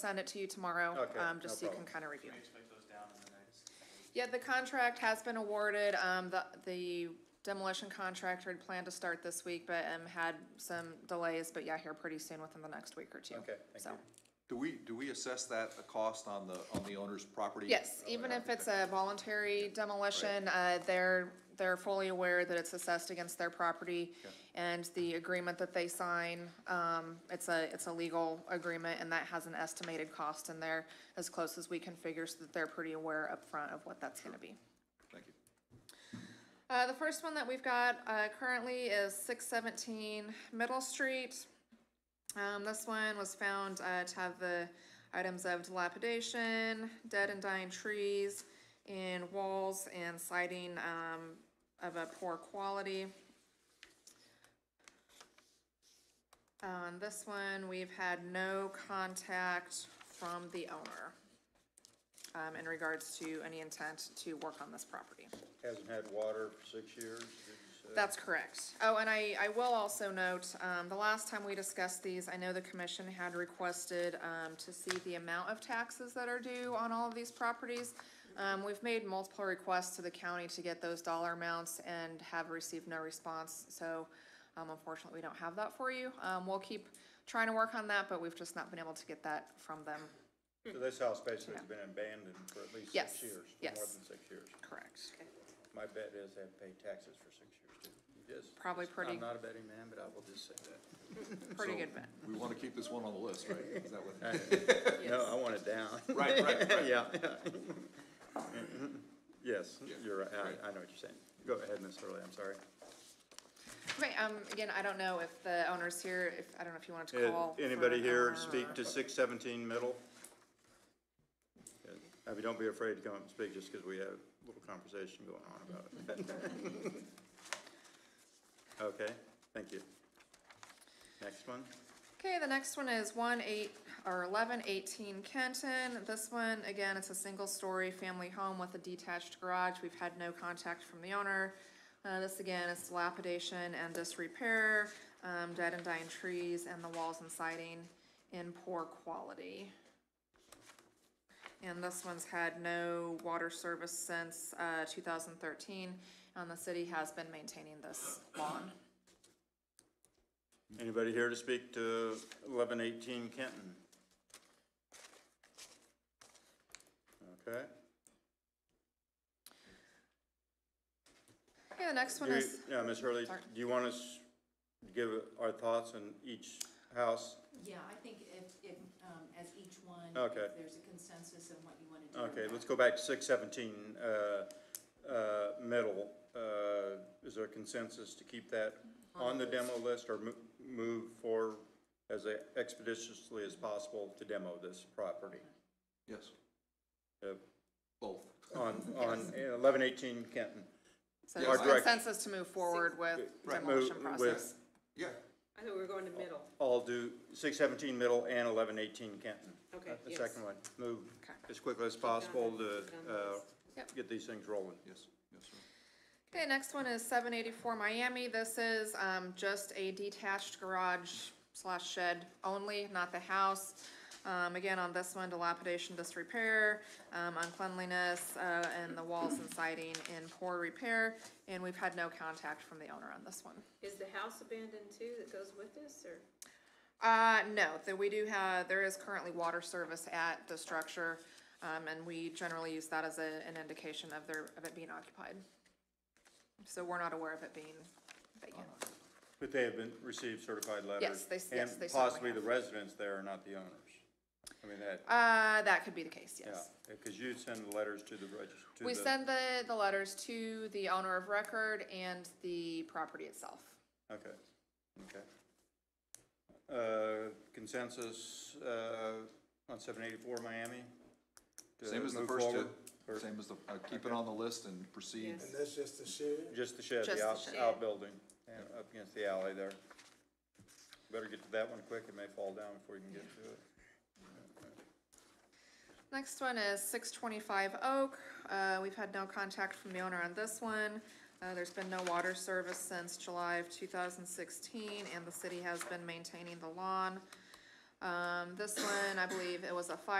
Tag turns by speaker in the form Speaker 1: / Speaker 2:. Speaker 1: send it to you tomorrow,
Speaker 2: Okay,
Speaker 1: um,
Speaker 2: no
Speaker 1: just so you can
Speaker 2: problem.
Speaker 1: kind of review
Speaker 3: Can you
Speaker 1: it.
Speaker 3: just make those down in the next?
Speaker 1: Yeah, the contract has been awarded, um, the, the demolition contractor had planned to start this week, but, um, had some delays, but yeah, here pretty soon, within the next week or two.
Speaker 2: Okay, thank
Speaker 1: So,
Speaker 2: you.
Speaker 4: Do we, do we assess that, the cost on the, on the owner's property? Oh,
Speaker 1: Yes, even if it's a voluntary demolition, uh, they're, they're fully aware that it's assessed against their property. And the agreement that they sign, um, it's a, it's a legal agreement, and that has an estimated cost in there as close as we can figure, so that they're pretty aware upfront of what that's gonna be.
Speaker 4: Thank you.
Speaker 1: Uh, the first one that we've got, uh, currently is six seventeen Middle Street. Um, this one was found, uh, to have the items of dilapidation, dead and dying trees, and walls and siding, um, of a poor quality. Uh, On this one, we've had no contact from the owner, um, in regards to any intent to work on this property.
Speaker 2: Hasn't had water for six years, did you say?
Speaker 1: That's correct. Oh, and I, I will also note, um, the last time we discussed these, I know the commission had requested, um, to see the amount of taxes that are due on all of these properties. Um, we've made multiple requests to the county to get those dollar amounts and have received no response, so, um, unfortunately, we don't have that for you. Um, we'll keep trying to work on that, but we've just not been able to get that from them.
Speaker 2: So this house basically has been abandoned for at least
Speaker 1: Hmm. Yes,
Speaker 2: six years, for
Speaker 1: yes.
Speaker 2: more than six years.
Speaker 1: Correct.
Speaker 2: My bet is they haven't paid taxes for six years, too. Just-
Speaker 1: Probably pretty-
Speaker 2: I'm not a betting man, but I will just say that.
Speaker 1: Pretty
Speaker 4: So,
Speaker 1: good bet.
Speaker 4: We want to keep this one on the list, right? Is that what?
Speaker 2: No, I want it down.
Speaker 4: Right, right, right.
Speaker 2: Yeah. Yes, you're right,
Speaker 4: right.
Speaker 2: I, I know what you're saying. Go ahead, Ms. Hurley, I'm sorry.
Speaker 1: Okay, um, again, I don't know if the owner's here, if, I don't know if you wanted to
Speaker 2: Uh,
Speaker 1: call. for
Speaker 2: Anybody
Speaker 1: an
Speaker 2: here
Speaker 1: owner
Speaker 2: speak
Speaker 1: or-
Speaker 2: to six seventeen middle? Good. I mean, don't be afraid to come up and speak just because we have a little conversation going on about it. Okay, thank you. Next one?
Speaker 1: Okay, the next one is one eight, or eleven eighteen Kenton. This one, again, it's a single-story family home with a detached garage. We've had no contact from the owner. Uh, this again is dilapidation and disrepair, um, dead and dying trees, and the walls and siding in poor quality. And this one's had no water service since, uh, two thousand thirteen, and the city has been maintaining this lawn.
Speaker 2: Anybody here to speak to eleven eighteen Kenton? Okay.
Speaker 1: Okay, the next one
Speaker 2: Do you-
Speaker 1: is.
Speaker 2: Yeah, Ms. Hurley,
Speaker 1: Sorry.
Speaker 2: do you want us to give our thoughts on each house?
Speaker 5: Yeah, I think if, if, um, as each one.
Speaker 2: Okay.
Speaker 5: if There's a consensus on what you want to do.
Speaker 2: Okay, let's go back to six seventeen, uh, uh, middle. Uh, is there consensus to keep that on the demo list or mo- move for as expeditiously as possible to demo this property?
Speaker 4: Yes,
Speaker 2: Uh,
Speaker 4: both.
Speaker 2: On, on eleven eighteen Kenton.
Speaker 1: So
Speaker 4: Yeah,
Speaker 1: there's
Speaker 2: I direct-
Speaker 1: consensus to move forward with
Speaker 4: Right.
Speaker 1: demolition
Speaker 2: Move with-
Speaker 1: process.
Speaker 4: Yeah,
Speaker 6: I thought we were going
Speaker 2: Oh.
Speaker 6: to middle.
Speaker 2: I'll do six seventeen middle and eleven eighteen Kenton.
Speaker 6: Okay,
Speaker 2: Uh, The
Speaker 6: yes.
Speaker 2: second one, move
Speaker 1: Okay.
Speaker 2: as quickly as possible to,
Speaker 6: Keep it on the
Speaker 2: uh,
Speaker 6: list.
Speaker 1: Yep.
Speaker 2: get these things rolling.
Speaker 4: yes, yes, sir.
Speaker 1: Okay, next one is seven eighty-four Miami. This is, um, just a detached garage slash shed only, not the house. Um, again, on this one, dilapidation, disrepair, um, uncleanliness, uh, and the walls and siding in poor repair. And we've had no contact from the owner on this one.
Speaker 6: Is the house abandoned too that goes with this, or?
Speaker 1: Uh, no, that we do have, there is currently water service at the structure, um, and we generally use that as a, an indication of their, of it being occupied. So we're not aware of it being vacant.
Speaker 2: But they have been, received certified letters?
Speaker 1: they- yes, they certainly
Speaker 2: And possibly the
Speaker 1: have.
Speaker 2: residents there are not the owners? I mean, that,
Speaker 1: Uh, that could be the case,
Speaker 2: yeah,
Speaker 1: yes.
Speaker 2: because you send the letters to the register, to the...
Speaker 1: We send the, the letters to the owner of record and the property itself.
Speaker 2: Okay, okay. Uh, Consensus uh, on 784 Miami? to
Speaker 4: Same as the
Speaker 2: move
Speaker 4: first two,
Speaker 2: forward? Or
Speaker 4: same as the, uh, keep it on the list and proceed.
Speaker 6: Yes.
Speaker 7: And that's just the shed?
Speaker 2: Just the shed,
Speaker 1: Just the
Speaker 2: the out-
Speaker 1: shed.
Speaker 2: outbuilding, yeah, up against the alley there. Better get to that one quick, it may fall down before you can get to it.
Speaker 1: Next one is six twenty-five Oak. Uh, we've had no contact from the owner on this one. Uh, there's been no water service since July of two thousand sixteen, and the city has been maintaining the lawn. Um, this one, I believe it was a fire